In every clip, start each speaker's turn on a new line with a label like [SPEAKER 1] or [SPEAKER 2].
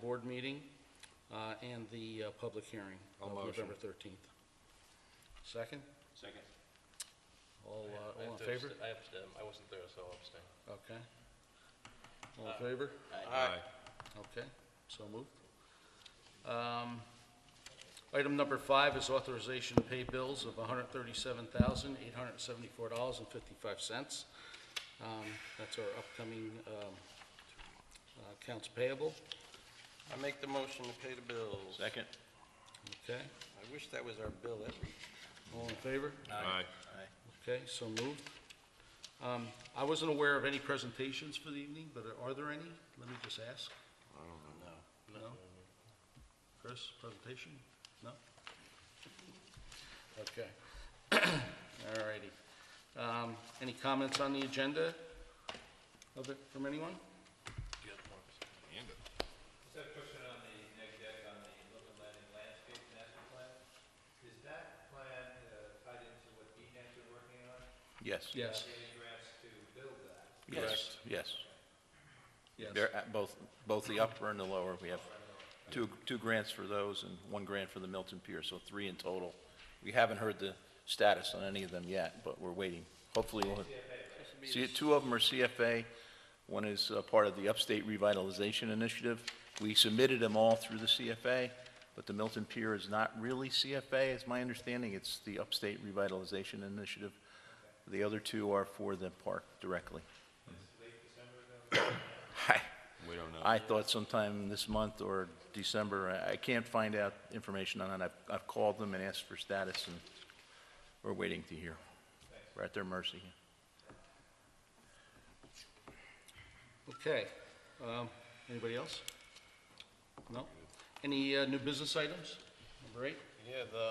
[SPEAKER 1] board meeting uh, and the uh, public hearing
[SPEAKER 2] I'll
[SPEAKER 1] of
[SPEAKER 2] motion.
[SPEAKER 1] November 13th. Second?
[SPEAKER 3] Second.
[SPEAKER 1] All uh,
[SPEAKER 3] I
[SPEAKER 1] all
[SPEAKER 3] have
[SPEAKER 1] in
[SPEAKER 3] to
[SPEAKER 1] favor?
[SPEAKER 3] abst- I abstain. I wasn't there, so I'll abstain.
[SPEAKER 1] Okay. All
[SPEAKER 3] Uh.
[SPEAKER 1] in favor?
[SPEAKER 2] Aye.
[SPEAKER 1] Okay, so moved. Um, Item number five is authorization to pay bills of $137,874.55. Um, That's our upcoming um, uh, accounts payable,
[SPEAKER 4] I make the motion to pay the bills.
[SPEAKER 3] Second.
[SPEAKER 1] okay?
[SPEAKER 4] I wish that was our bill every,
[SPEAKER 1] All in favor?
[SPEAKER 2] Aye.
[SPEAKER 1] Okay, so moved. Um, I wasn't aware of any presentations for the evening, but are there any? Let me just ask. I don't know. No? Chris, presentation? No? Okay. All righty. Um, Any comments on the agenda of it, from anyone?
[SPEAKER 5] Just have a question on the neg deck on the Look Atlantic Landscape Master Plan. Is that plan uh, tied into what DNA's been working on?
[SPEAKER 6] Yes,
[SPEAKER 1] Yes.
[SPEAKER 5] Getting grants to build that?
[SPEAKER 6] yes, yes.
[SPEAKER 1] Yes.
[SPEAKER 6] They're at both, both the upper and the lower. We have two, two grants for those and one grant for the Milton Pier, so three in total. We haven't heard the status on any of them yet, but we're waiting. Hopefully, we'll, see, two of them are CFA. One is uh, part of the Upstate Revitalization Initiative. We submitted them all through the CFA, but the Milton Pier is not really CFA, is my understanding. It's the Upstate Revitalization Initiative. The other two are for the park directly. I-
[SPEAKER 2] We don't know.
[SPEAKER 6] I thought sometime this month or December, I- I can't find out information on it. I've, I've called them and asked for status, and we're waiting to hear. We're at their mercy.
[SPEAKER 1] Okay. Um, Anybody else? No? Any uh, new business items? Number eight?
[SPEAKER 4] yeah, the,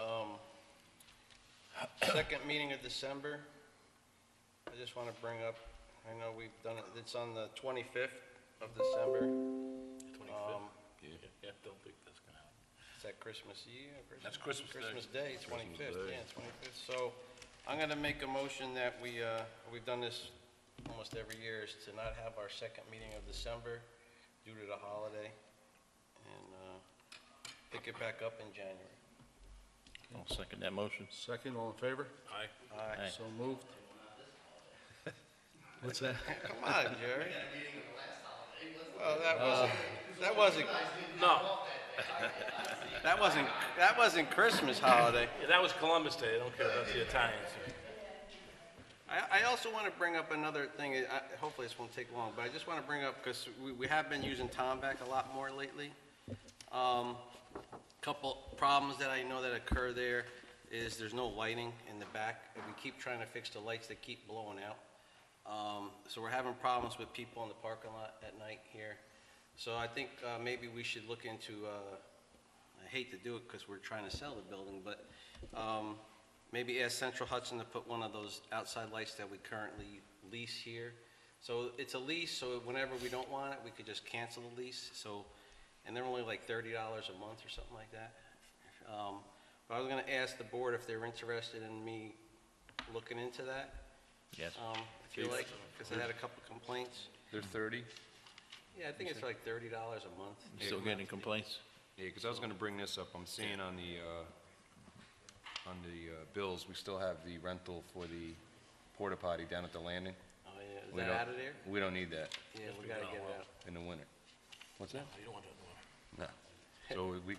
[SPEAKER 4] um, second meeting of December. I just want to bring up, I know we've done it, it's on the 25th of December. Um,
[SPEAKER 3] Yeah, don't think that's gonna happen.
[SPEAKER 4] Is that Christmas Eve? or Christmas-
[SPEAKER 3] That's Christmas Day.
[SPEAKER 4] Christmas Day, 25th, yeah, 25th. So I'm going to make a motion that we, uh, we've done this almost every year, is to not have our second meeting of December due to the holiday, and uh, pick it back up in January.
[SPEAKER 6] I'll second that motion.
[SPEAKER 1] Second, all in favor?
[SPEAKER 3] Aye.
[SPEAKER 4] Uh,
[SPEAKER 6] Aye.
[SPEAKER 1] So moved. What's that?
[SPEAKER 4] Come on, Jerry. Well, that wasn't, that wasn't,
[SPEAKER 3] No,
[SPEAKER 4] that wasn't, that wasn't Christmas holiday.
[SPEAKER 3] yeah, that was Columbus Day. I don't care about the Italians.
[SPEAKER 4] I, I also want to bring up another thing, I, hopefully this won't take long, but I just want to bring up, because we, we have been using Tomback a lot more lately. Um, couple problems that I know that occur there is there's no lighting in the back, and we keep trying to fix the lights that keep blowing out. Um, so we're having problems with people in the parking lot at night here. So I think, uh, maybe we should look into, uh, I hate to do it because we're trying to sell the building, but um, maybe ask Central Hudson to put one of those outside lights that we currently lease here. So it's a lease, so whenever we don't want it, we could just cancel the lease, so, and they're only like thirty dollars a month or something like that. Um, But I was gonna ask the board if they're interested in me looking into that,
[SPEAKER 6] Yes.
[SPEAKER 4] um, if you like, because I had a couple complaints.
[SPEAKER 2] They're 30?
[SPEAKER 4] Yeah, I think it's like thirty dollars a month.
[SPEAKER 6] Still getting complaints?
[SPEAKER 2] Yeah, because I was going to bring this up. I'm seeing on the, uh, on the uh, bills, we still have the rental for the porta potty down at the landing.
[SPEAKER 4] Oh, yeah, is
[SPEAKER 2] We
[SPEAKER 4] that
[SPEAKER 2] don't-
[SPEAKER 4] out of there?
[SPEAKER 2] We don't need that
[SPEAKER 4] Yeah, we gotta get it out.
[SPEAKER 2] in the winter. What's that?
[SPEAKER 3] You don't want that in the water.
[SPEAKER 2] No. So we,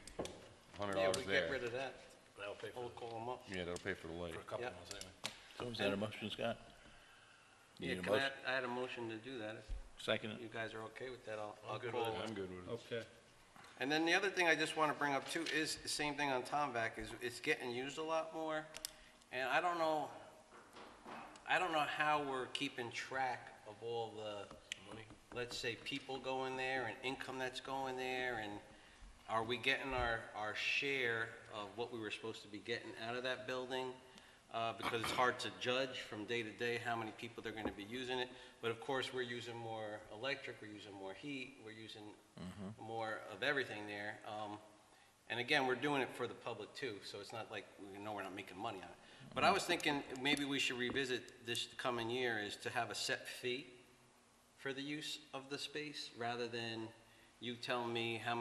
[SPEAKER 2] $100
[SPEAKER 4] Yeah,
[SPEAKER 2] there.
[SPEAKER 4] we get rid of that.
[SPEAKER 3] That'll pay for,
[SPEAKER 4] We'll
[SPEAKER 3] the-
[SPEAKER 4] call them up.
[SPEAKER 2] Yeah, that'll pay for the light.
[SPEAKER 3] for a couple
[SPEAKER 4] Yeah.
[SPEAKER 3] months anyway.
[SPEAKER 6] So is that a motion, Scott? You
[SPEAKER 4] Yeah,
[SPEAKER 6] need a
[SPEAKER 4] can I,
[SPEAKER 6] motion?
[SPEAKER 4] I had a motion to do that.
[SPEAKER 6] Second
[SPEAKER 4] If
[SPEAKER 6] it?
[SPEAKER 4] you guys are okay with that, I'll, I'll
[SPEAKER 3] good
[SPEAKER 4] call.
[SPEAKER 3] with
[SPEAKER 2] I'm good with it.
[SPEAKER 1] Okay.
[SPEAKER 4] And then the other thing I just want to bring up too is the same thing on Tomback is it's getting used a lot more. And I don't know, I don't know how we're keeping track of all the, let's say, people going there and income that's going there and are we getting our, our share of what we were supposed to be getting out of that building? Uh, because it's hard to judge from day to day how many people they're gonna be using it. But of course, we're using more electric, we're using more heat, we're using more of everything there. Um, and again, we're doing it for the public too, so it's not like, we know we're not making money on it. But I was thinking, maybe we should revisit this coming year is to have a set fee for the use of the space, rather than you tell me how